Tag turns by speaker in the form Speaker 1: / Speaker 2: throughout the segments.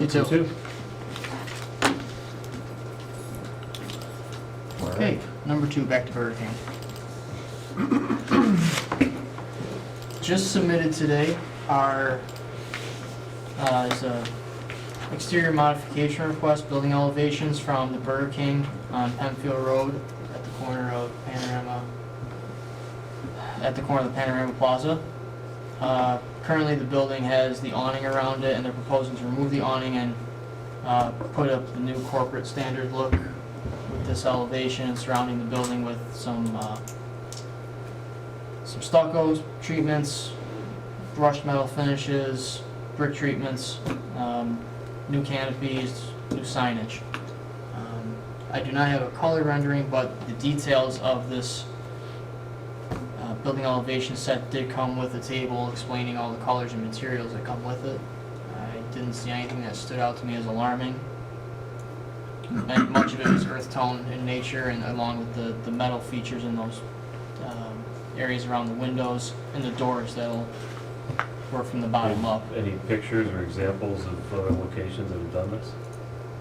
Speaker 1: You too.
Speaker 2: All right.
Speaker 1: Okay, number two, back to Burger King. Just submitted today are, uh, is a exterior modification request, building elevations from the Burger King on Penfield Road at the corner of Panorama, at the corner of the Panorama Plaza. Uh, currently, the building has the awning around it, and they're proposing to remove the awning and, uh, put up the new corporate standard look with this elevation and surrounding the building with some, uh, some stucco treatments, brushed metal finishes, brick treatments, um, new canopies, new signage. Um, I do not have a color rendering, but the details of this, uh, building elevation set did come with a table explaining all the colors and materials that come with it. I didn't see anything that stood out to me as alarming and much of it was earth tone in nature and along with the, the metal features in those um, areas around the windows and the doors that'll work from the bottom up.
Speaker 3: Any pictures or examples of other locations that have done this?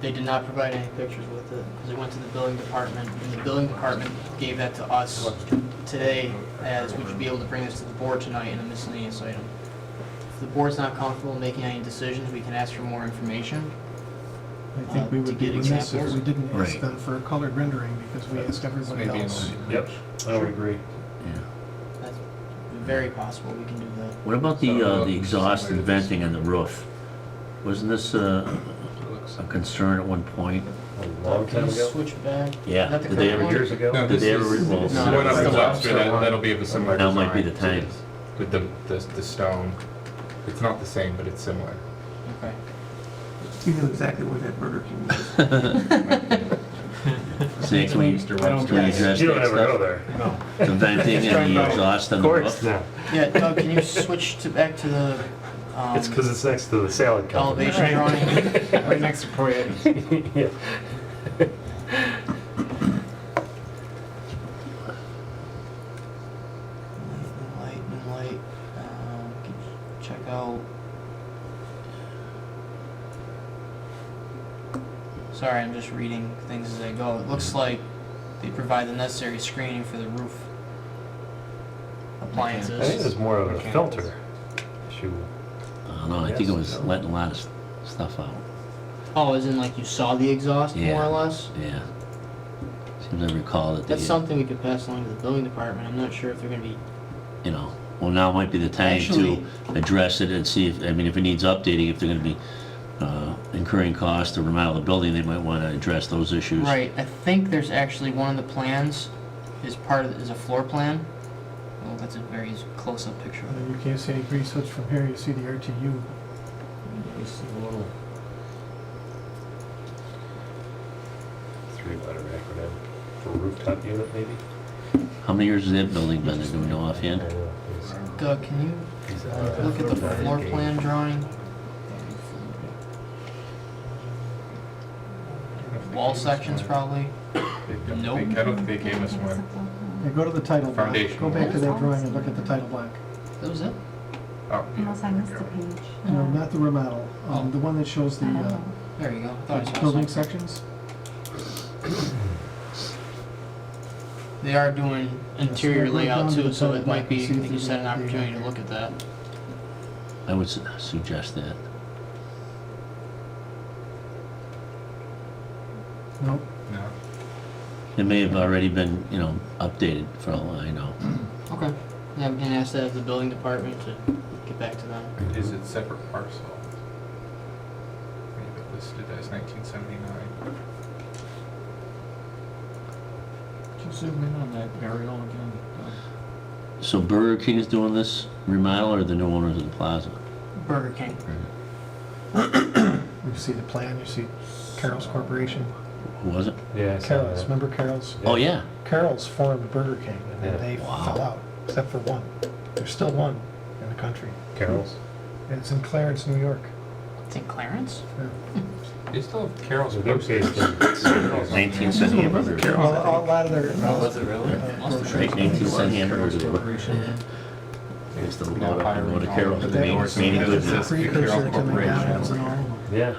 Speaker 1: They did not provide any pictures with it because it went to the building department and the building department gave that to us today as we should be able to bring this to the board tonight in a miscellaneous item. If the board's not comfortable making any decisions, we can ask for more information.
Speaker 4: I think we
Speaker 1: Uh, to
Speaker 4: would be
Speaker 1: get
Speaker 4: remiss if
Speaker 1: examples.
Speaker 4: we didn't ask
Speaker 2: Right.
Speaker 4: them for a colored rendering because we asked everybody
Speaker 5: Maybe
Speaker 4: else.
Speaker 5: in-
Speaker 3: Yep, I would agree.
Speaker 2: Yeah.
Speaker 1: That's very possible, we can do that.
Speaker 2: What about the,
Speaker 5: So,
Speaker 2: uh, the exhaust and venting on the roof? Wasn't this uh,
Speaker 5: looks-
Speaker 2: a concern at one point?
Speaker 3: A long
Speaker 1: Can
Speaker 3: time
Speaker 1: you
Speaker 3: ago,
Speaker 1: switch back?
Speaker 2: Yeah,
Speaker 1: Not the
Speaker 2: did they
Speaker 1: current
Speaker 2: ever
Speaker 1: one?
Speaker 2: get-
Speaker 3: years ago.
Speaker 5: No,
Speaker 2: Did
Speaker 5: this
Speaker 2: they ever
Speaker 5: is,
Speaker 2: re- well,
Speaker 5: this is
Speaker 1: No,
Speaker 5: one
Speaker 1: it's
Speaker 5: on the
Speaker 1: the
Speaker 5: lobster,
Speaker 3: lobster
Speaker 5: that,
Speaker 3: one.
Speaker 5: that'll be of a similar
Speaker 2: Now
Speaker 5: design.
Speaker 2: might be the time.
Speaker 5: With the, the, the stone, it's not the same, but it's similar.
Speaker 1: Okay.
Speaker 6: You know exactly where that Burger King was.
Speaker 2: Say, can we,
Speaker 5: Mr.
Speaker 2: can we address
Speaker 3: You don't
Speaker 2: the
Speaker 3: ever go there.
Speaker 2: venting and the exhaust on
Speaker 3: Of
Speaker 2: the
Speaker 3: course
Speaker 2: roof?
Speaker 3: not.
Speaker 1: Yeah, Doug, can you switch to, back to the, um,
Speaker 3: It's because it's next to the salad company.
Speaker 1: elevation drawing?
Speaker 4: Right next to Poyetti's.
Speaker 3: Yeah.
Speaker 1: Light and light, um, can you check out. Sorry, I'm just reading things as I go. It looks like they provide the necessary screening for the roof
Speaker 3: I think
Speaker 1: appliances.
Speaker 3: it's more of a
Speaker 5: Mechanicals.
Speaker 3: filter issue.
Speaker 2: I don't know, I think it was letting a lot of s- stuff out,
Speaker 1: Oh, as in like you saw the exhaust more
Speaker 2: Yeah.
Speaker 1: or less?
Speaker 2: yeah. Seems I recall that uh,
Speaker 1: That's
Speaker 2: they,
Speaker 1: something we could pass along to the building department. I'm not sure if they're gonna be
Speaker 2: you know, well, now might be the time
Speaker 1: Actually-
Speaker 2: to address it and see if, I mean, if it needs updating, if they're gonna be uh, incurring costs to remodel the building, they might wanna address those issues.
Speaker 1: Right, I think there's actually one of the plans is part of, is a floor plan. Well, that's a very close-up picture of it.
Speaker 4: You can't see any grease hoods from here, you see the RTU.
Speaker 1: You see the little-
Speaker 3: Three-letter acronym for rooftop unit, maybe?
Speaker 2: How many years has that building been, there? do we know offhand?
Speaker 1: Doug, can you look at the floor plan drawing? Wall sections probably? Nope.
Speaker 5: I don't think they gave us one.
Speaker 4: Now go to the title block,
Speaker 5: Foundation.
Speaker 4: go back to that drawing and look at the title block.
Speaker 1: That was it?
Speaker 5: Oh, yeah.
Speaker 7: Unless I missed a page.
Speaker 4: No,
Speaker 1: Mm-hmm.
Speaker 4: not the remodel, um, the one that shows the,
Speaker 7: I don't
Speaker 4: uh,
Speaker 7: know.
Speaker 1: There you go. I thought I saw
Speaker 4: building
Speaker 1: something.
Speaker 4: sections.
Speaker 1: They are doing interior
Speaker 4: Let's go
Speaker 1: layout
Speaker 4: down to
Speaker 1: too,
Speaker 4: the
Speaker 1: so
Speaker 4: title
Speaker 1: it
Speaker 4: block
Speaker 1: might
Speaker 4: and
Speaker 1: be,
Speaker 4: see if
Speaker 1: you
Speaker 4: there's
Speaker 1: said an
Speaker 4: anything
Speaker 1: opportunity to
Speaker 4: there.
Speaker 1: look at that.
Speaker 2: I would su- suggest that.
Speaker 4: Nope,
Speaker 5: No.
Speaker 2: It may have already been, you know, updated for all I know.
Speaker 1: Okay. Yeah, we can ask that of the building department to get back to them.
Speaker 5: Is it separate parcel? Maybe listed as nineteen seventy-nine.
Speaker 1: zoom in on that aerial again?
Speaker 2: So Burger King is doing this remodel or the new owners of the plaza?
Speaker 1: Burger King.
Speaker 4: you see the plan, you see Carol's Corporation.
Speaker 2: Who was it?
Speaker 3: Yeah. I saw
Speaker 4: Carol's,
Speaker 3: that.
Speaker 4: remember Carol's?
Speaker 2: Oh, yeah.
Speaker 4: Carol's formed Burger King and
Speaker 3: Yeah.
Speaker 4: then they
Speaker 2: Wow.
Speaker 4: fell out, except for one. There's still one in the country.
Speaker 3: Carol's.
Speaker 4: And it's in Clarence, New York.
Speaker 1: It's in Clarence?
Speaker 4: Yeah.
Speaker 5: They still have Carol's.
Speaker 3: They're based in-
Speaker 5: Carol's.
Speaker 2: Nineteen cent hamburgers.
Speaker 4: Well, a lot of their. uh,
Speaker 5: it really?
Speaker 2: Right, nineteen cent hamburgers. It's the, I wrote a Carol's,
Speaker 4: But
Speaker 2: the
Speaker 4: that
Speaker 2: main,
Speaker 4: was
Speaker 2: main
Speaker 4: the
Speaker 2: good.
Speaker 5: business.
Speaker 4: precursor to McDonald's and all of them.
Speaker 3: Yeah.